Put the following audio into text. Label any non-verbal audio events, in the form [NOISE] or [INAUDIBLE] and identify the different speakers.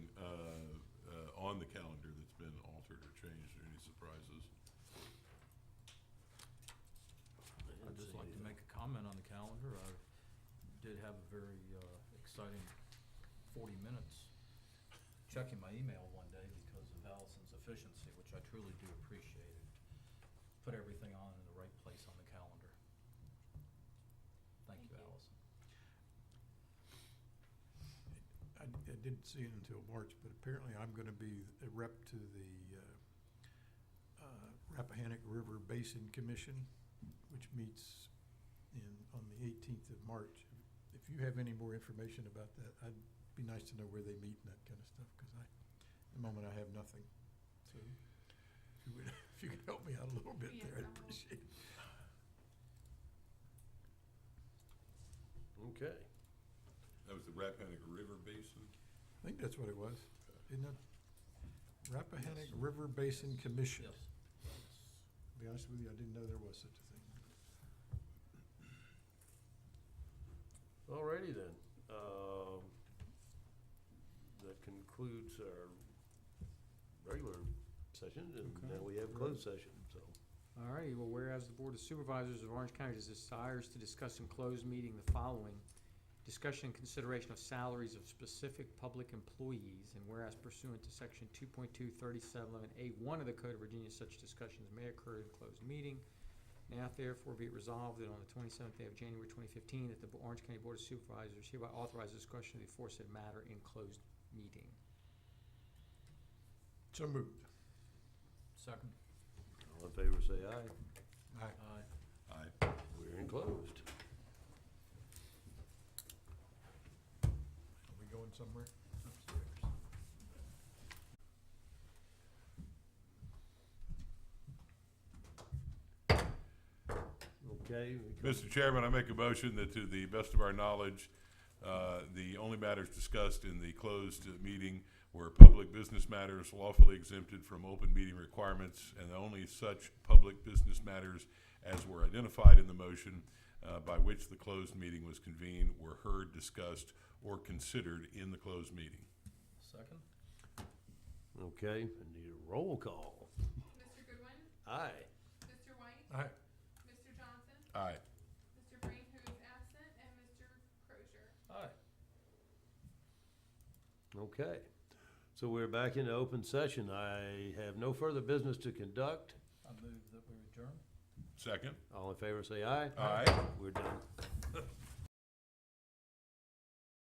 Speaker 1: uh, on the calendar that's been altered or changed, or any surprises?
Speaker 2: I'd just like to make a comment on the calendar. I did have a very uh, exciting forty minutes checking my email one day because of Allison's efficiency, which I truly do appreciate. and Put everything on in the right place on the calendar. Thank
Speaker 3: Thank
Speaker 2: you,
Speaker 3: you.
Speaker 2: Allison.
Speaker 4: I, I didn't see it until March, but apparently I'm gonna be a rep to the, uh, uh, Rappahannock River Basin Commission, which meets in, on the eighteenth of March. If you have any more information about that, I'd, be nice to know where they meet and that kinda stuff, cause I, at the moment I have nothing. So, if you would, [LAUGHS] if you could help me out a little bit
Speaker 3: Yes, I
Speaker 4: there, I'd
Speaker 3: will.
Speaker 4: appreciate it.
Speaker 5: Okay.
Speaker 1: That was the Rappahannock River Basin?
Speaker 4: I think that's what it was, isn't it? Rappahannock River Basin Commission.
Speaker 2: Yes.
Speaker 4: Be honest with you, I didn't know there was such a thing.
Speaker 5: Alrighty then. Um, That concludes our regular session, and now we have closed session, so.
Speaker 6: All righty, well, whereas the Board of Supervisors of Orange County desires to discuss in closed meeting the following, discussion and consideration of salaries of specific public employees, and whereas pursuant to section two point two thirty-seven eleven A one of the Code of Virginia, such discussions may occur in closed meeting. Now therefore be it resolved that on the twenty-seventh day of January twenty fifteen, that the Bo- Orange County Board of Supervisors hereby authorizes discussion of the aforesaid matter in closed meeting.
Speaker 4: So moved.
Speaker 2: Second.
Speaker 5: All in favor, say aye.
Speaker 4: Aye.
Speaker 2: Aye.
Speaker 1: Aye.
Speaker 5: We're enclosed.
Speaker 4: Are we going somewhere?
Speaker 5: Okay. we can-
Speaker 1: Mr. Chairman, I make a motion that to the best of our knowledge, uh, the only matters discussed in the closed uh, meeting were public business matters lawfully exempted from open meeting requirements, and only such public business matters as were identified in the motion uh, by which the closed meeting was convened were heard, discussed, or considered in the closed meeting.
Speaker 2: Second?
Speaker 5: Okay, I need a roll call.
Speaker 3: Mr. Goodwin,
Speaker 5: Aye.
Speaker 3: Mr. White,
Speaker 4: Aye.
Speaker 3: Mr. Johnson,
Speaker 1: Aye.
Speaker 3: Mr. Green, who is absent, and Mr. Crozier.
Speaker 2: Aye.
Speaker 5: Okay. So we're back into open session. I have no further business to conduct.
Speaker 2: I move that we adjourn.
Speaker 1: Second?
Speaker 5: All in favor, say aye.
Speaker 1: Aye.
Speaker 5: We're done.